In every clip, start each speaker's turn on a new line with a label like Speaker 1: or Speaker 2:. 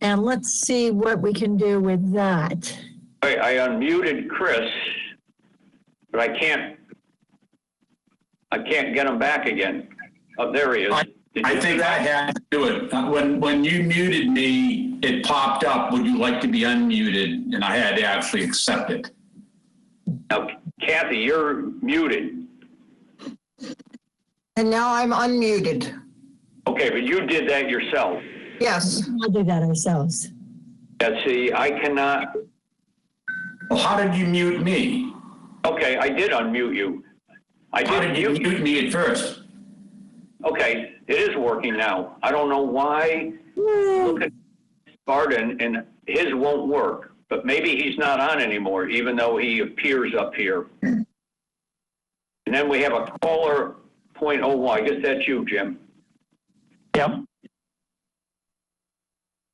Speaker 1: And let's see what we can do with that.
Speaker 2: I, I unmuted Chris, but I can't, I can't get him back again. Oh, there he is. Did
Speaker 3: I
Speaker 2: you-
Speaker 3: think I had to do it. Uh, When, when you muted me, it popped up, would you like to be unmuted? And I had to actually accept it.
Speaker 2: Now, Kathy, you're muted.
Speaker 4: And now I'm unmuted.
Speaker 2: Okay, but you did that yourself.
Speaker 4: Yes.
Speaker 1: We'll do that ourselves.
Speaker 2: Now, see, I cannot,
Speaker 3: Well, how did you mute me?
Speaker 2: okay, I did unmute you. I
Speaker 3: How
Speaker 2: did
Speaker 3: did you
Speaker 2: mute you.
Speaker 3: mute me at first?
Speaker 2: Okay, it is working now. I don't know why.
Speaker 5: Hmm.
Speaker 2: Look at Barden and his won't work, but maybe he's not on anymore, even though he appears up here.
Speaker 5: Hmm.
Speaker 2: And then we have a caller point oh one. I guess that's you, Jim.
Speaker 5: Yep,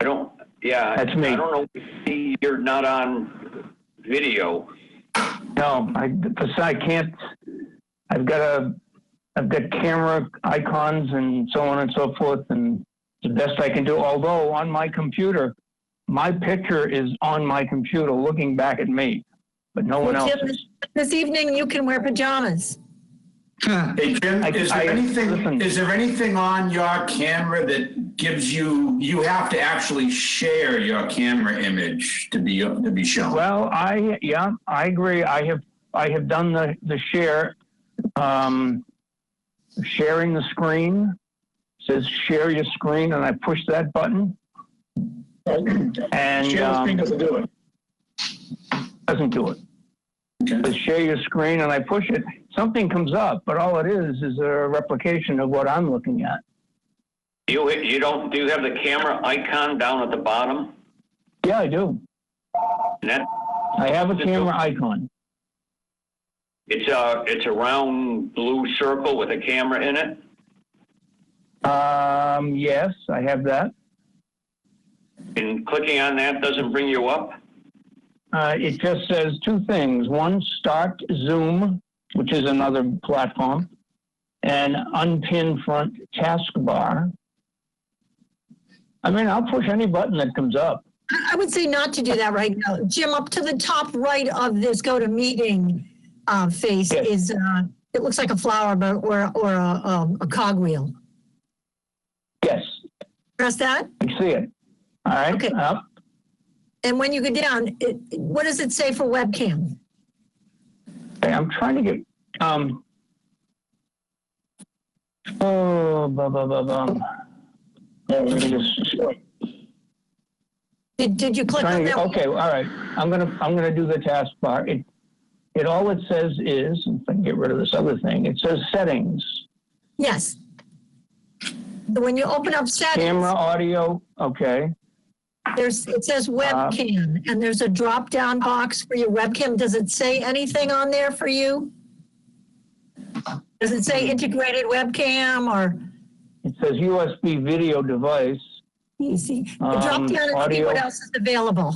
Speaker 2: I don't, yeah.
Speaker 5: That's me.
Speaker 2: I don't know. You're not on video.
Speaker 5: no, I, besi- I can't, I've got a, I've got camera icons and so on and so forth, and it's the best I can do, although on my computer, my picture is on my computer looking back at me, but no one
Speaker 1: Well,
Speaker 5: else.
Speaker 1: Jim, This evening, you can wear pajamas.
Speaker 3: Hey, Jim,
Speaker 5: I-
Speaker 3: is there
Speaker 5: I-
Speaker 3: anything,
Speaker 5: listen.
Speaker 3: is there anything on your camera that gives you, you have to actually share your camera image to be, to be shown?
Speaker 5: Well, I, yeah, I agree, I have, I have done the, the share, um, sharing the screen, says share your screen, and I push that button, and, um,
Speaker 3: doesn't do it.
Speaker 5: doesn't do it. But share your screen and I push it, something comes up, but all it is is a replication of what I'm looking at.
Speaker 2: You, you don't, do you have the camera icon down at the bottom?
Speaker 5: Yeah, I do.
Speaker 2: And that,
Speaker 5: I have a camera icon.
Speaker 2: it's a, it's a round blue circle with a camera in it?
Speaker 5: Um, yes, I have that.
Speaker 2: And clicking on that doesn't bring you up?
Speaker 5: Uh, it just says two things. One, start Zoom, which is another platform, and unpin front taskbar. I mean, I'll push any button that comes up.
Speaker 1: I- I would say not to do that right now. Jim, up to the top right of this go to meeting uh, face
Speaker 5: Yes.
Speaker 1: is, uh, it looks like a flower, but, or, or a, um, a cogwheel.
Speaker 5: Yes,
Speaker 1: Press that.
Speaker 5: I see it. All right,
Speaker 1: Okay.
Speaker 5: up.
Speaker 1: And when you go down, it, what does it say for webcam?
Speaker 5: Okay, I'm trying to get, um, oh, blah, blah, blah, blah. Yeah, let me just-
Speaker 1: Did, did you click on
Speaker 5: trying to-
Speaker 1: that?
Speaker 5: Okay, all right, I'm gonna, I'm gonna do the task bar. It, it, all it says is, if I can get rid of this other thing, it says settings,
Speaker 1: Yes. So When you open up
Speaker 5: camera,
Speaker 1: settings,
Speaker 5: audio, okay.
Speaker 1: there's, it says
Speaker 5: Uh,
Speaker 1: webcam, and there's a drop-down box for your webcam. Does it say anything on there for you? Does it say integrated webcam or,
Speaker 5: It says USB video device.
Speaker 1: you see, the
Speaker 5: Um,
Speaker 1: drop down and see what
Speaker 5: audio.
Speaker 1: else is available.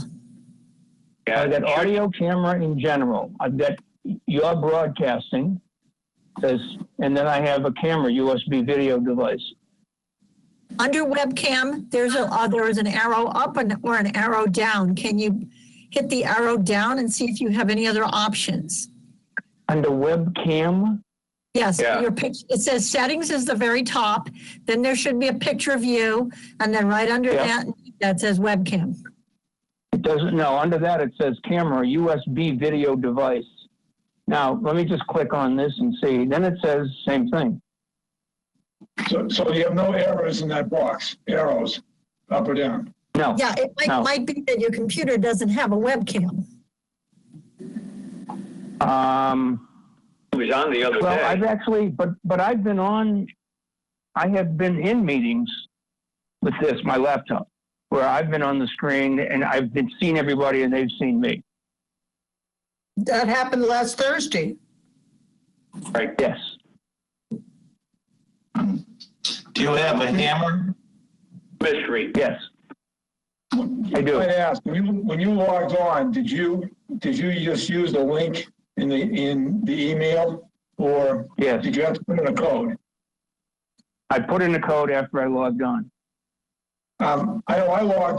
Speaker 2: Yeah,
Speaker 5: I've got audio, camera in general. I've got your broadcasting, says, and then I have a camera USB video device.
Speaker 1: Under webcam, there's a, uh, there is an arrow up and, or an arrow down. Can you hit the arrow down and see if you have any other options?
Speaker 5: Under webcam,
Speaker 1: Yes,
Speaker 2: Yeah.
Speaker 1: your pic, it says settings is the very top, then there should be a picture of you, and then right under
Speaker 5: Yeah.
Speaker 1: that, that says webcam.
Speaker 5: it doesn't, no, under that it says camera, USB video device. Now, let me just click on this and see. Then it says same thing.
Speaker 6: So, so you have no arrows in that box, arrows up or down?
Speaker 5: No,
Speaker 1: Yeah, it might,
Speaker 5: No.
Speaker 1: might be that your computer doesn't have a webcam.
Speaker 5: um,
Speaker 2: he was on the other
Speaker 5: well, I've
Speaker 2: day.
Speaker 5: actually, but, but I've been on, I have been in meetings with this, my laptop, where I've been on the screen and I've been seen everybody and they've seen me.
Speaker 4: That happened last Thursday.
Speaker 2: Right.
Speaker 5: Yes.
Speaker 3: Do you have a hammer?
Speaker 2: Mystery.
Speaker 5: Yes. I do.
Speaker 6: I asked, when you, when you logged on, did you, did you just use the link in the, in the email? Or
Speaker 5: Yes.
Speaker 6: did you have to put in a code?
Speaker 5: I put in a code after I logged on.
Speaker 6: Um, I know I logged